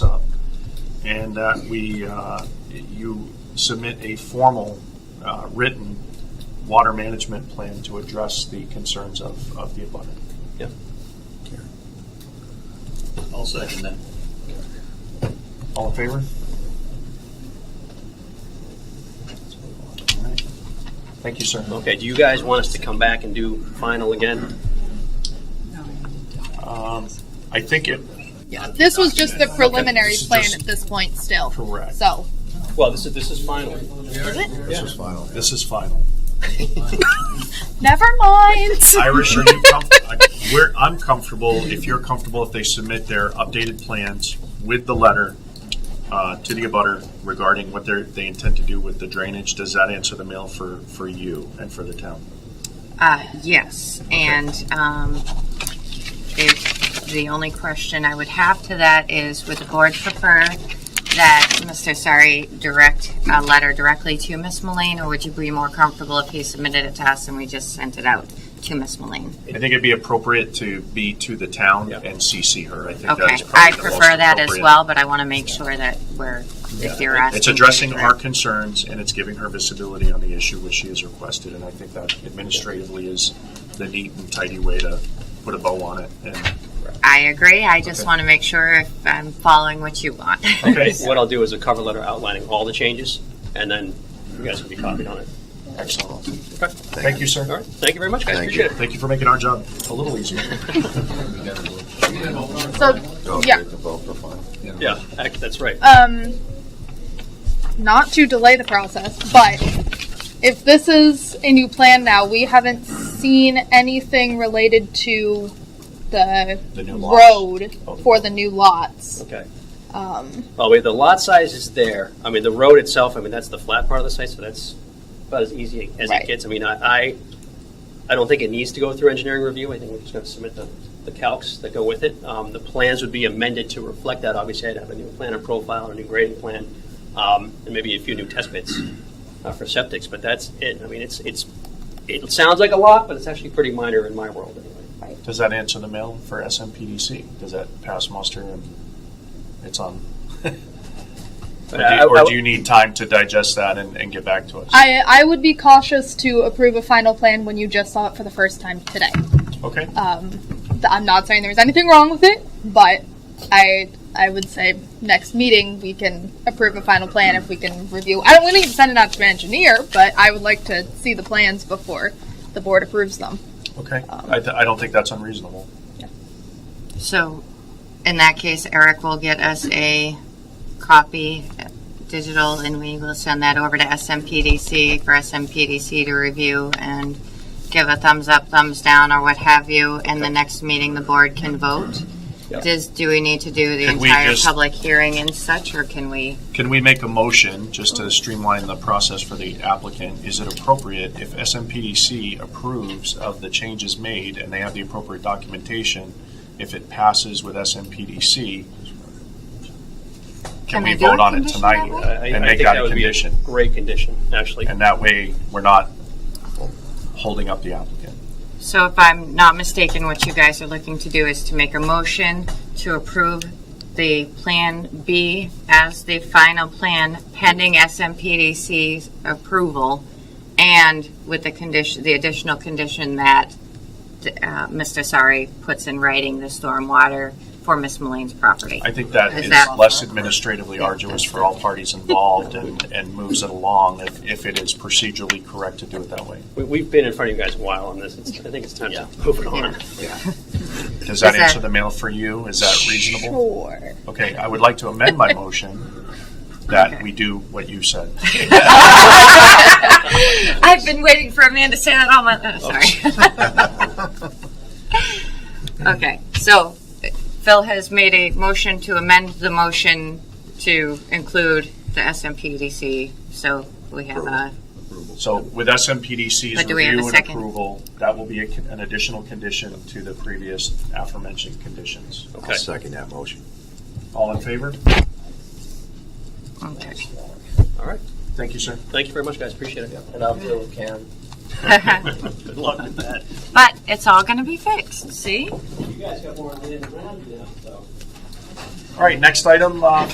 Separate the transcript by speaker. Speaker 1: and that we, uh, you submit a formal uh, written water management plan to address the concerns of, of the abutter.
Speaker 2: Yep.
Speaker 3: I'll second that.
Speaker 1: All in favor? Thank you, sir.
Speaker 2: Okay, do you guys want us to come back and do final again?
Speaker 1: Um, I think it,
Speaker 4: Yeah, this was just the preliminary plan at this point still.
Speaker 1: Correct.
Speaker 4: So,
Speaker 2: Well, this is, this is final.
Speaker 4: is it?
Speaker 2: Yeah.
Speaker 5: This is final.
Speaker 1: this is final.
Speaker 4: Never mind.
Speaker 1: Irish, are you com- I- we're, I'm comfortable, if you're comfortable, if they submit their updated plans with the letter uh, to the abutter regarding what they're, they intend to do with the drainage, does that answer the mail for, for you and for the town?
Speaker 6: Uh, yes, and, um, if, the only question I would have to that is, would the board prefer that Mr. Sari direct a letter directly to Miss Mullane, or would you be more comfortable if he submitted it to us and we just sent it out to Miss Mullane?
Speaker 1: I think it'd be appropriate to be to the town
Speaker 2: Yeah.
Speaker 1: and CC her. I think that
Speaker 6: Okay,
Speaker 1: is probably
Speaker 6: I
Speaker 1: the most
Speaker 6: prefer that as
Speaker 1: appropriate.
Speaker 6: well, but I want to make sure that we're, if you're asking.
Speaker 1: It's addressing
Speaker 6: for-
Speaker 1: our concerns and it's giving her visibility on the issue which she has requested. And I think that administratively is the neat and tidy way to put a bow on it. And
Speaker 6: I agree, I just
Speaker 1: Okay.
Speaker 6: want to make sure if I'm following what you want.
Speaker 1: Okay.
Speaker 2: What I'll do is a cover letter outlining all the changes, and then you guys can be copied on it.
Speaker 1: Excellent.
Speaker 2: Okay.
Speaker 1: Thank you,
Speaker 2: All
Speaker 1: sir.
Speaker 2: right, thank you very much, guys,
Speaker 5: Thank
Speaker 2: appreciate
Speaker 5: you.
Speaker 2: it.
Speaker 1: Thank you for making our job a little easier.
Speaker 4: so,
Speaker 5: Oh,
Speaker 4: Yeah.
Speaker 5: take the vote for final.
Speaker 2: Yeah, act- that's right.
Speaker 4: um, not to delay the process, but if this is a new plan now, we haven't seen anything related to the,
Speaker 1: The new lots.
Speaker 4: road
Speaker 1: Oh.
Speaker 4: for the new lots.
Speaker 2: Okay.
Speaker 4: Um,
Speaker 2: Oh, wait, the lot size is there. I mean, the road itself, I mean, that's the flat part of the site, so that's about as easy as
Speaker 4: Right.
Speaker 2: it gets. I mean, I, I, I don't think it needs to go through engineering review. I think we're just going to submit the, the calcs that go with it. Um, the plans would be amended to reflect that. Obviously, I'd have a new plan and profile, a new grading plan, um, and maybe a few new test bits uh, for septics. But that's it. I mean, it's it's it sounds like a lot, but it's actually pretty minor in my world anyway.
Speaker 1: Does that answer the mail for SMPDC? Does that pass muster and it's on? Or
Speaker 2: But
Speaker 1: do
Speaker 6: Uh,
Speaker 2: I-
Speaker 1: you,
Speaker 2: I-
Speaker 1: or do you need time to digest that and, and get back to us?
Speaker 4: I, I would be cautious to approve a final plan when you just saw it for the first time today.
Speaker 1: Okay,
Speaker 6: uh,
Speaker 4: Th- I'm not saying there's anything wrong with it, but I I would say next meeting we can approve a final plan if we can review. I don't we don't need to send it out to an engineer, but I would like to see the plans before the board approves them.
Speaker 1: okay. I, th- I don't think that's unreasonable.
Speaker 6: So, in that case, Eric will get us a copy, uh, digital, and we will send that over to SMPDC for SMPDC to review and give a thumbs up, thumbs down, or what have you. And the next meeting, the board can vote.
Speaker 2: Yep.
Speaker 6: Does, do we need to do the
Speaker 1: Can we
Speaker 6: entire
Speaker 1: just-
Speaker 6: public hearing and such, or can we?
Speaker 1: Can we make a motion, just to streamline the process for the applicant? Is it appropriate if SMPDC approves of the changes made and they have the appropriate documentation, if it passes with SMPDC, can
Speaker 6: Can
Speaker 1: we
Speaker 6: we do
Speaker 1: vote
Speaker 6: a
Speaker 1: on it
Speaker 6: condition
Speaker 1: tonight
Speaker 6: that way?
Speaker 2: I, I-
Speaker 1: and
Speaker 2: I
Speaker 1: make
Speaker 2: think
Speaker 1: that
Speaker 2: that
Speaker 1: a
Speaker 2: would be
Speaker 1: condition?
Speaker 2: great condition, actually.
Speaker 1: And that way, we're not holding up the applicant.
Speaker 6: So if I'm not mistaken, what you guys are looking to do is to make a motion to approve the Plan B as the final plan pending SMPDC's approval and with the condition, the additional condition that uh, Mr. Sari puts in writing the stormwater for Miss Mullane's property.
Speaker 1: I think that
Speaker 6: Is
Speaker 1: is
Speaker 6: that-
Speaker 1: less administratively arduous for all parties involved and, and moves it along if, if it is procedurally correct to do it that way.
Speaker 2: We, we've been in front of you guys a while on this. It's, I think it's time to move it on.
Speaker 1: Does that
Speaker 6: Is that-
Speaker 1: answer the mail for you? Is that reasonable?
Speaker 4: Sure.
Speaker 1: Okay, I would like to amend my motion that we do what you said.
Speaker 6: I've been waiting for a man to say that all my. Oh, sorry. okay, so Phil has made a motion to amend the motion to include the SMPDC. So we have a
Speaker 1: So with SMPDC's
Speaker 6: But do we have a
Speaker 1: review and
Speaker 6: second?
Speaker 1: approval, that will be a con- an additional condition to the previous aforementioned conditions.
Speaker 2: Okay.
Speaker 5: I'll second that motion.
Speaker 1: All in favor?
Speaker 6: okay.
Speaker 2: All right.
Speaker 1: Thank you, sir.
Speaker 2: Thank you very much, guys. Appreciate it. And I'll deal with Karen. Good luck with that.
Speaker 6: but it's all going to be fixed. See.
Speaker 2: You guys got more land around you now, so.
Speaker 1: All right, next item, uh,